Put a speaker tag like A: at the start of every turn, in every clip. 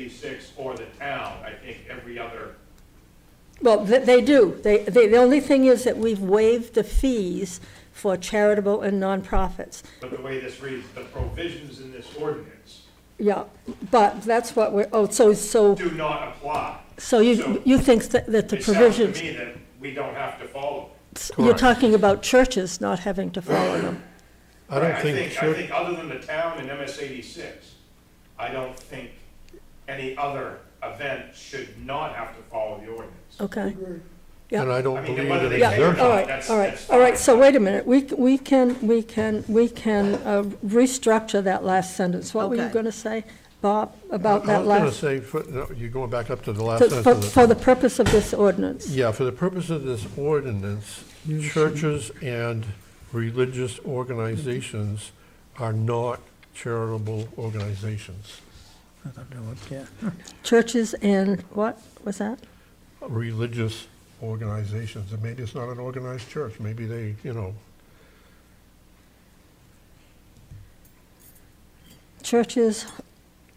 A: eighty-six or the town, I think every other,
B: Well, th- they do. They, they, the only thing is that we've waived the fees for charitable and nonprofits.
A: but the way this reads, the provisions in this ordinance
B: Yeah, but that's what we're, oh, so, so,
A: do not apply.
B: so you, you think that that the
A: It sounds to
B: provisions,
A: me that we don't have to follow.
B: you're talking about churches not having to follow them.
C: I
A: Right,
C: don't think,
A: I
C: church-
A: think other than the town and MS eighty-six, I don't think any other event should not have to follow the ordinance.
B: Okay? Yeah.
C: and I
A: I
C: don't
A: mean,
C: believe
A: whether
C: it
A: they
B: Yeah,
A: say or
C: exempts.
B: all
A: not,
B: right,
A: that's-
B: all right,
A: that's
B: all right,
A: fine.
B: so wait a minute, we, c- we can, we can, we can uh, restructure that last sentence. What were you
D: Okay.
B: gonna say, Bob, about
C: I
B: that
C: was gonna
B: last?
C: say, for- no, you're going back up to the last
B: to-
C: sentence.
B: For,
C: of the-
B: for the purpose of this ordinance?
C: Yeah, for the purpose of this ordinance, churches and religious organizations are not charitable organizations.
B: Churches and, what was that?
C: Religious organizations, and maybe it's not an organized church, maybe they, you know,
B: Churches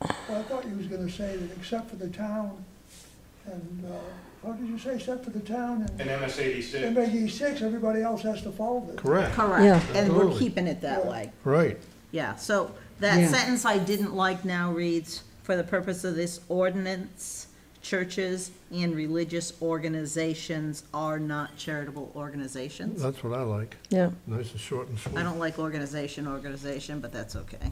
E: Well, I thought you was gonna say that except for the town and, uh, what did you say, except for the town
A: In
E: and
A: MS eighty-six,
E: MBG six, everybody else has to follow this.
C: correct,
B: Yeah.
D: Correct, and we're
C: Absolutely.
D: keeping it that way,
C: right.
D: yeah, so that
F: Yeah.
D: sentence I didn't like now reads, for the purpose of this ordinance, churches and religious organizations are not charitable organizations.
C: That's what I like,
B: Yeah,
C: nice and short and sweet.
D: I don't like organization, organization, but that's okay.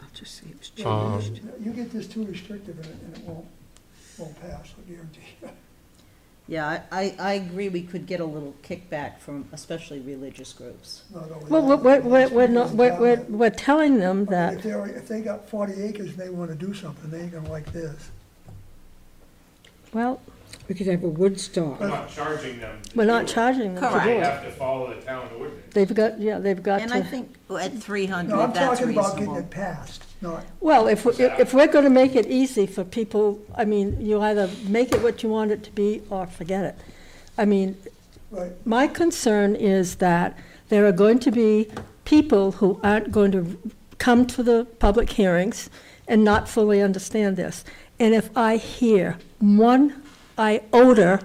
F: I'll just see if it's
C: Um,
F: changed.
E: You get this too restrictive and it, and it won't, won't pass, I guarantee you.
D: Yeah, I, I, I agree, we could get a little kickback from especially religious groups.
E: Not only
B: well,
E: that,
B: we're, we're,
E: it's
B: we're not,
E: people
B: we're,
E: in
B: we're,
E: town
B: we're telling them
E: that- I mean, If
B: that,
E: they're, if they got forty acres and they wanna do something, they ain't gonna like this.
B: well,
F: We could have a Woodstock.
A: we're not charging them. to
B: we're not
A: do it.
B: charging them to
D: Correct.
B: do
A: They
B: it.
A: have to follow the town ordinance.
B: They've got, yeah, they've got
D: And I
B: to,
D: think at three
E: No, I'm
D: hundred, that's
E: talking about getting
D: reasonable.
E: it passed, not,
B: well, if, we- if we're gonna make it easy for people, I mean, you either make it what you want it to be or forget it. I mean,
E: right,
B: my concern is that there are going to be people who aren't going to come to the public hearings and not fully understand this. And if I hear one iota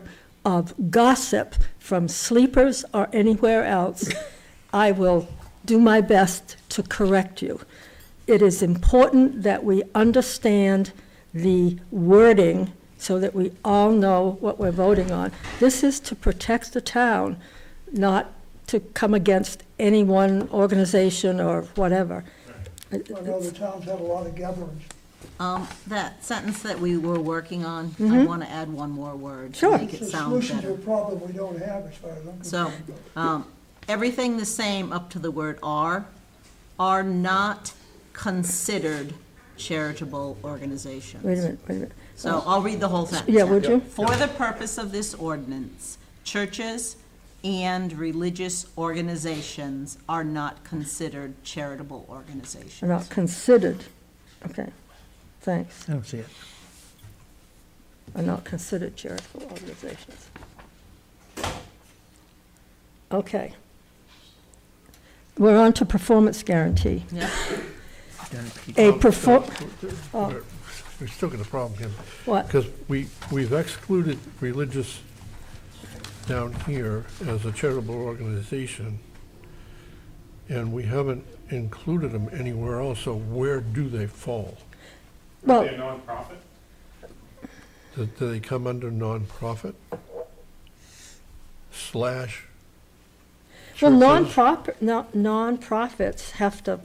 B: of gossip from sleepers or anywhere else, I will do my best to correct you. It is important that we understand the wording so that we all know what we're voting on. This is to protect the town, not to come against any one organization or whatever. Uh,
E: I know the towns have a lot of gatherings.
D: Um, that sentence that we were working on, I wanna add one more word
B: Mm-hmm.
D: to
B: Sure.
D: make
E: It's
D: it
E: a
D: sound
E: solution to
D: better.
E: a problem we don't have as far as I'm
D: So,
E: concerned.
D: um, everything the same up to the word are, are not considered charitable organizations.
B: Wait a minute, wait a minute.
D: So I'll read the whole sentence.
B: Yeah, would you?
D: For the purpose of this ordinance, churches and religious organizations are not considered charitable
B: Are Not
D: organizations.
B: considered, okay, thanks,
G: I don't see it.
B: are not considered charitable organizations. Okay. We're on to performance guarantee.
D: Yeah,
B: A perform,
C: Um, We're we're still got a problem here.
B: what?
C: Because we, we've excluded religious down here as a charitable organization, and we haven't included them anywhere else, so where do they fall?
A: Are
B: Well,
A: they a nonprofit?
C: Do do they come under nonprofit slash
B: Well,
C: churches?
B: nonprofit, no- nonprofits have to,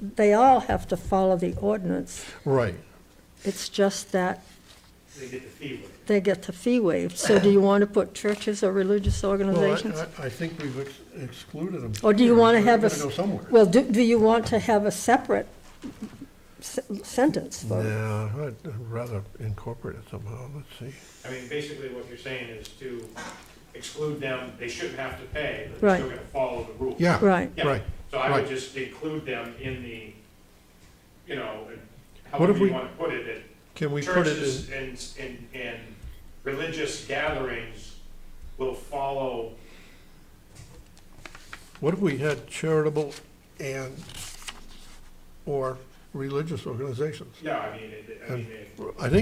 B: they all have to follow the ordinance.
C: Right.
B: It's just that
A: They get the fee waiver.
B: they get the fee waived. So do you want to put churches or religious
C: Well, I-
B: organizations?
C: I, I think we've ex- excluded them.
B: Or do you want to have a?
C: Gotta go
B: s-
C: somewhere.
B: Well, do, do you want to have a separate s- sentence for it?
C: Yeah, I'd I'd rather incorporate it somehow, let's see.
A: I mean, basically what you're saying is to exclude them, they shouldn't have to pay, but
B: Right.
A: they're still gonna follow the rules.
C: Yeah.
B: Right.
A: Yeah.
C: Right.
A: So I would
C: Right.
A: just include them in the, you know,
C: What if
A: however you
C: we-
A: wanna put it, that
C: Can we put it in?
A: churches and, and, and religious gatherings will follow,
C: What if we had charitable and, or
H: religious organizations.
C: Yeah, I mean, it, I mean,